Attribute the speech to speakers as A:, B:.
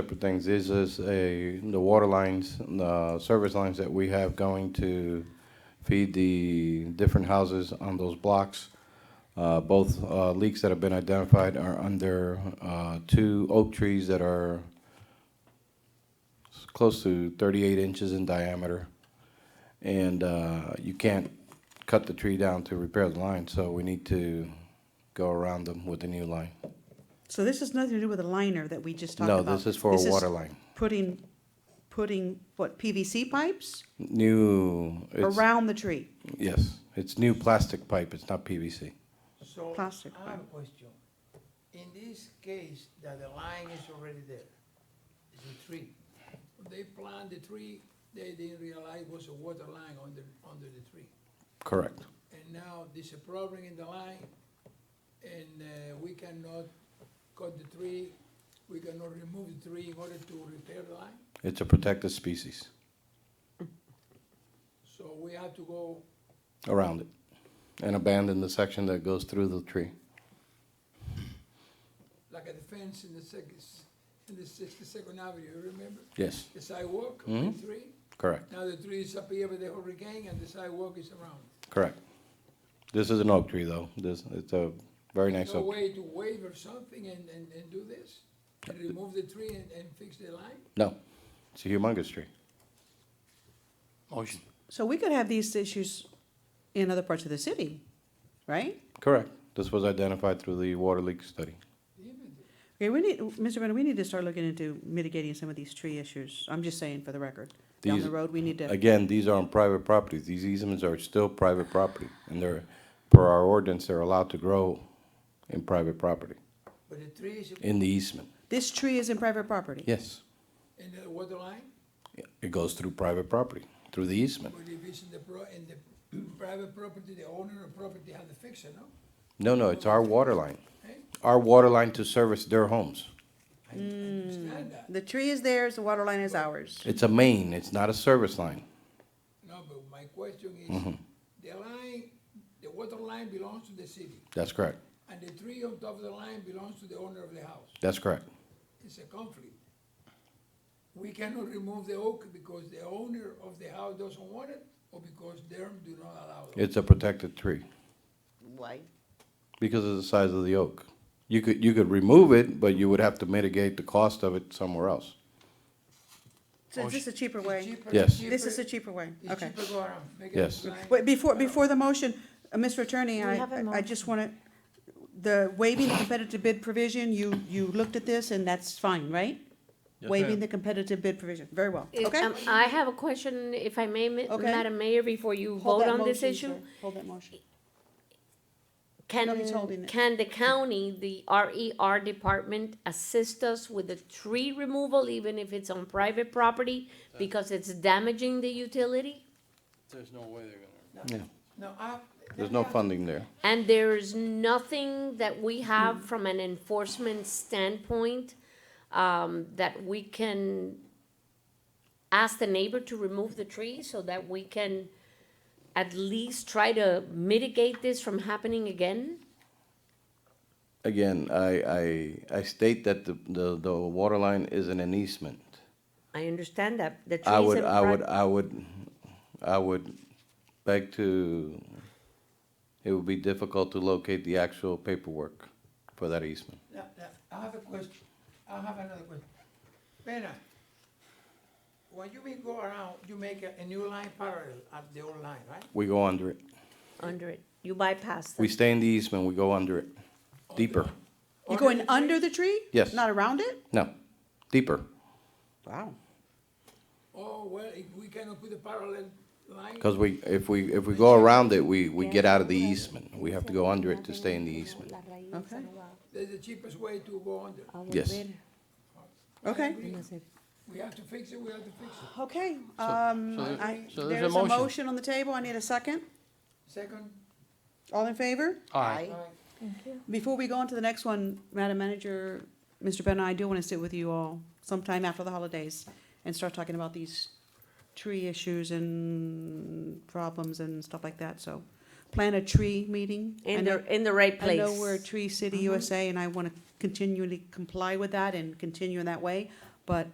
A: Couple things, this is a, the water lines, the service lines that we have going to feed the different houses on those blocks. Uh, both, uh, leaks that have been identified are under, uh, two oak trees that are s- close to thirty-eight inches in diameter. And, uh, you can't cut the tree down to repair the line, so we need to go around them with a new line.
B: So this has nothing to do with the liner that we just talked
A: No,
B: about?
A: this is for a water line.
B: Putting, putting, what, PVC pipes
A: New, it's,
B: around the tree?
A: yes, it's new plastic pipe, it's not PVC.
C: So, I
B: Plastic
C: have a
B: pipe.
C: question. In this case, that the line is already there, it's a tree. They plant the tree, they didn't realize was a water line under, under the tree.
A: Correct.
C: And now there's a problem in the line, and uh, we cannot cut the tree, we cannot remove the tree in order to repair the line.
A: It's a protected species
C: So we have to go,
A: around it and abandon the section that goes through the tree.
C: like at the fence in the second, in the sixty-second avenue, remember?
A: Yes,
C: The sidewalk, the
A: Mhm.
C: tree?
A: correct,
C: Now the tree is up here with the hurricane and the sidewalk is around.
A: correct. This is an oak tree though. This, it's a very nice
C: No
A: oak.
C: way to waive or something and, and, and do this? And remove the tree and, and fix the line?
A: No, it's a humongous tree.
D: Motion.
B: So we could have these issues in other parts of the city, right?
A: Correct. This was identified through the water leak study.
B: Okay, we need, Mr. Brenner, we need to start looking into mitigating some of these tree issues. I'm just saying for the record. Down
A: These-
B: the road, we need to,
A: Again, these are on private properties. These easements are still private property and they're, per our ordinance, they're allowed to grow in private property,
C: But the tree is
A: in the easement.
B: this tree is in private property.
A: Yes,
C: in the water line,
A: it goes through private property, through the easement.
C: but if it's in the pro, in the private property, the owner of property has to fix it, no?
A: No, no, it's our water line.
C: Hey,
A: Our water line to service their homes.
C: I I understand that.
B: The tree is theirs, the water line is ours.
A: It's a main, it's not a service line.
C: No, but my question
A: Mm-hmm.
C: is, the line, the water line belongs to the city,
A: That's correct.
C: and the tree on top of the line belongs to the owner of the house.
A: That's correct.
C: It's a conflict. We cannot remove the oak because the owner of the house doesn't want it, or because them do not allow it.
A: It's a protected tree
B: Why?
A: because of the size of the oak. You could, you could remove it, but you would have to mitigate the cost of it somewhere else.
B: So is this a cheaper way?
C: Cheaper-
A: Yes.
C: cheaper-
B: This is a cheaper way,
C: it's
B: okay.
C: cheaper go around, make it
A: Yes.
C: blind.
B: Wait, before, before the motion, uh, Mr. Attorney,
E: We
B: I,
E: have a
B: I- I just want to, the waiving the competitive bid provision, you, you looked at this and that's fine, right? Waiving the competitive bid provision, very well,
E: If,
B: okay?
E: um, I have a question, if I may, Ma-
B: Okay.
E: Madam Mayor, before you
B: Hold
E: vote
B: that
E: on this
B: motion, sir.
E: issue.
B: Hold that motion. Nobody's holding
E: Can,
B: it.
E: can the county, the RER department assist us with the tree removal, even if it's on private property? Because it's damaging the utility?
D: There's no way they're gonna.
C: No, I.
A: There's no funding there.
E: And there is nothing that we have from an enforcement standpoint, um, that we can ask the neighbor to remove the tree so that we can at least try to mitigate this from happening again?
A: Again, I, I, I state that the, the, the water line is an easement.
E: I understand that, the trees
A: I
E: and.
A: would, I
E: pri-
A: would, uh, I would, I would beg to, it would be difficult to locate the actual paperwork for that easement.
C: No, no, I have a question, I have another question. Pena, when you make go around, you make a, a new line parallel at the old line, right?
A: We go under it.
E: Under it, you bypass
A: We
E: them.
A: stay in the easement, we go under it. Deeper.
B: You're going under the tree?
A: Yes.
B: Not around it?
A: No, deeper.
B: Wow.
C: Oh, well, if we cannot put a parallel line.
A: Because we, if we, if we go around it, we, we get out of the easement. We have to go under it to stay in the easement.
B: Okay.
C: That's the cheapest way to go under.
A: Yes.
B: Okay,
C: We have to fix it, we have to fix it.
B: okay, um,
D: so there-
B: I,
D: so there's a
B: there's a
D: motion.
B: motion on the table, I need a second,
C: Second,
B: all in favor?
D: Aye.
C: uh,
B: Before we go on to the next one, Madam Manager, Mr. Bennett, I do want to sit with you all sometime after the holidays and start talking about these tree issues and problems and stuff like that, so plan a tree meeting. I
E: In
B: know-
E: the, in the right
B: I
E: place. Mm-hmm.
B: know we're a Tree City USA, and I want to continually comply with that and continue in that way, But